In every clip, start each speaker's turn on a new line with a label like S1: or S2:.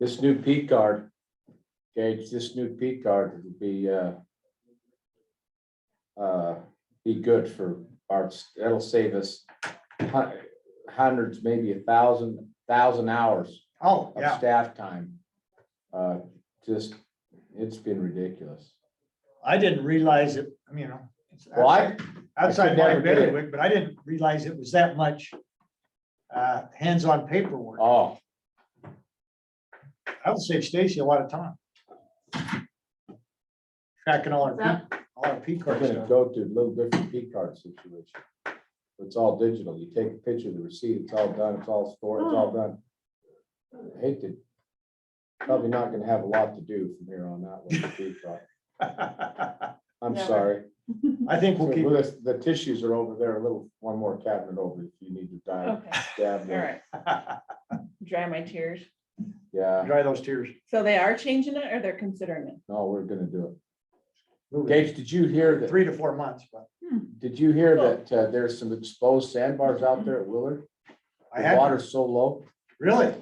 S1: This new peak guard, Gage, this new peak guard would be, uh, uh, be good for our, that'll save us hu- hundreds, maybe a thousand, thousand hours
S2: Oh,
S1: of
S2: yeah,
S1: staff time. Uh, just, it's been ridiculous.
S2: I didn't realize it, I mean, you know. it's
S1: Well, I-
S2: outside- Outside
S1: could never
S2: my
S1: get it.
S2: bailiwick, but I didn't realize it was that much uh, hands-on paperwork.
S1: Oh,
S2: I would save Stacy a lot of time. Tracking all our, P- all our P
S1: We're
S2: card
S1: gonna
S2: stuff.
S1: go to a little different P card situation. It's all digital. You take a picture of the receipt, it's all done, it's all stored, it's all done. I Hate to, probably not gonna have a lot to do from here on out with the P card. I'm
S3: Never.
S1: sorry.
S2: I think
S1: So
S2: we'll keep,
S1: The the tissues are over there, a little, one more cabinet over if you need to dive,
S3: Okay,
S1: dab
S3: all
S1: there.
S3: right, dry my tears.
S1: Yeah,
S2: dry those tears.
S3: So they are changing it or they're considering it?
S1: no, we're gonna do it.
S2: Move it
S1: Gage, did you hear that,
S2: Three to four months, but
S1: did you
S3: Oh.
S1: hear that uh, there's some exposed sandbars out there at Willard?
S2: I
S1: The
S2: had,
S1: water's so low.
S2: really?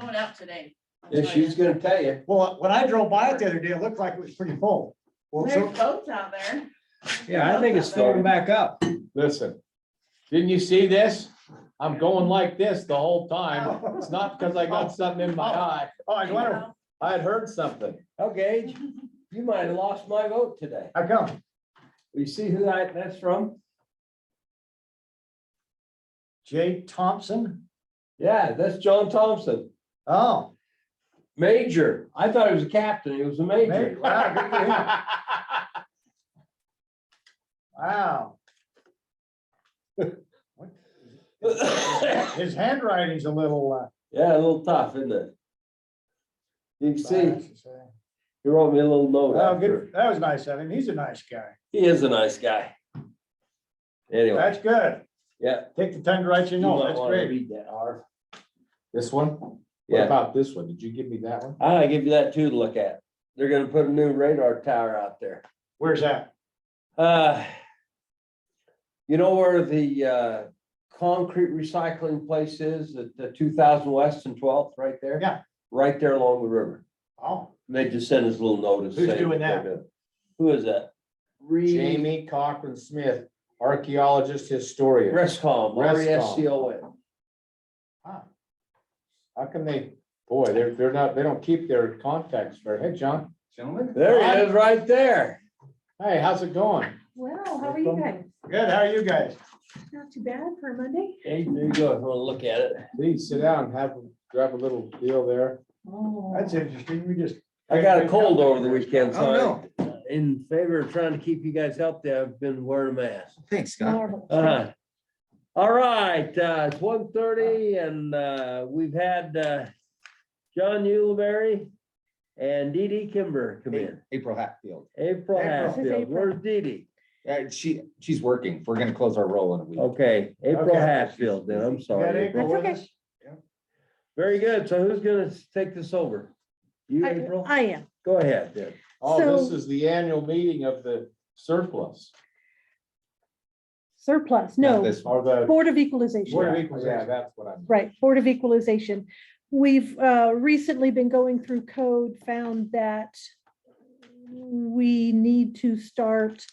S3: Going out today.
S4: Yeah, she was gonna tell you.
S2: Well, when I drove by it the other day, it looked like it was pretty full. Well, so,
S3: There's boats out there.
S4: Yeah, I think it's filling back up.
S1: Listen, didn't you see this? I'm going like this the whole time. It's not because I got something in my eye.
S2: oh, I wonder,
S1: I had heard something.
S4: Okay, you might have lost my vote today.
S2: how come?
S4: You see who that, that's from?
S2: Jay Thompson?
S4: Yeah, that's John Thompson,
S2: Oh,
S4: major. I thought he was a captain. He was a
S2: Major,
S4: major.
S2: wow, good for him. Wow.
S4: Yeah,
S2: His handwriting's a little. uh,
S4: a little tough, isn't it? You can
S2: uh,
S4: see, he wrote me a little note
S2: Oh, good.
S4: after.
S2: That was nice of him. He's a nice guy.
S4: He is a nice guy. Anyway,
S2: That's good.
S4: yeah.
S2: Take the time to write your
S4: you
S2: note.
S4: might
S2: That's
S4: wanna
S2: great.
S4: read that, Harv.
S1: This one? What
S4: Yeah,
S1: about this one? Did you give me that one?
S4: I give you that too to look at. They're gonna put a new radar tower out there.
S2: Where's that?
S4: Uh, You know where the uh, concrete recycling place is at the two thousand west and twelfth, right there?
S2: Yeah.
S4: Right there along the river.
S2: Oh,
S4: They just sent us a little notice.
S2: Who's
S4: saying
S2: doing
S4: they're
S2: that?
S4: doing- Who is that? Re,
S1: Jamie Cochran Smith, archaeologist, historian.
S4: Rescom,
S1: Rescom.
S4: R E S C O M.
S2: huh.
S1: How can they, boy, they're, they're not, they don't keep their contacts very, hey, John.
S2: Gentlemen.
S4: There he is, right there.
S1: Hey, how's it going?
S3: Well, how are you guys?
S2: Good. How are you guys?
S3: Not too bad for a Monday?
S4: Hey, there you go, if you wanna look at it.
S1: Please sit down, have, grab a little deal there.
S3: Oh.
S2: That's interesting. We just.
S4: I got a cold over the weekend,
S2: Oh,
S4: so I'm Uh, in favor of trying to keep you guys healthy. I've been wearing a mask.
S5: Thanks, Scott.
S3: Marvel.
S4: Uh-huh. All right, uh, it's one thirty and, uh, we've had, uh, John Uleberry and Dee Dee Kimber come in.
S5: April Hatfield.
S2: April.
S4: April
S3: This is
S4: Hatfield,
S3: April.
S4: where's Dee Dee?
S5: Uh, she, she's working. We're gonna close our roll in a
S1: Oh,
S5: week.
S4: Okay, April
S2: Okay.
S4: Hatfield, then, I'm
S2: You got
S4: sorry.
S2: April
S3: That's
S2: with
S3: okay.
S2: us?
S4: Very good, so who's gonna s- take this over? You,
S3: I
S4: April?
S3: I am.
S4: Go ahead then.
S1: Oh, this
S3: So-
S1: is the annual meeting of the surplus
S3: Surplus,
S5: Not
S3: no,
S5: This one.
S1: or the.
S3: Board of Equalization.
S1: Board of
S2: Yeah,
S1: Equalization. Yeah, that's what I'm.
S3: Right, Board of Equalization. We've uh, recently been going through code, found that we need to start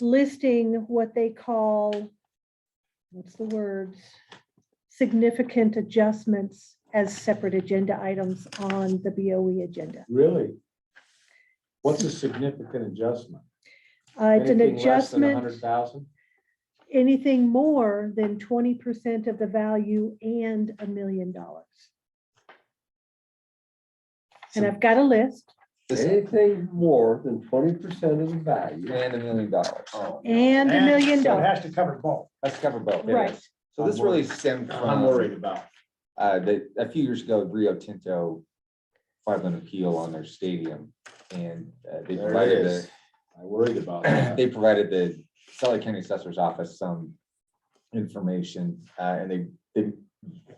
S3: listing what they call, what's the words? Significant adjustments as separate agenda items on the BOE agenda.
S1: Really? What's a significant adjustment?
S3: Uh, It's an
S1: Anything less than a
S3: adjustment.
S1: Hundred thousand?
S3: anything more than twenty percent of the value and a million dollars. And I've got a list
S5: This-
S4: Anything more than twenty percent of the value.
S5: And a million dollars.
S1: Oh.
S3: and a
S2: so
S3: million
S2: It
S3: dollars,
S2: has to cover both.
S5: Let's cover both.
S3: right?
S5: So this really stemmed
S1: I'm
S5: from,
S1: worried about.
S5: uh, the, a few years ago, Rio Tinto filed an appeal on their stadium and uh, they
S1: There it
S5: provided the
S1: is. I worried about that.
S5: they provided the Sally County Assessor's Office some information, uh, and they, they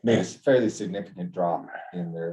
S5: made a fairly significant drop in their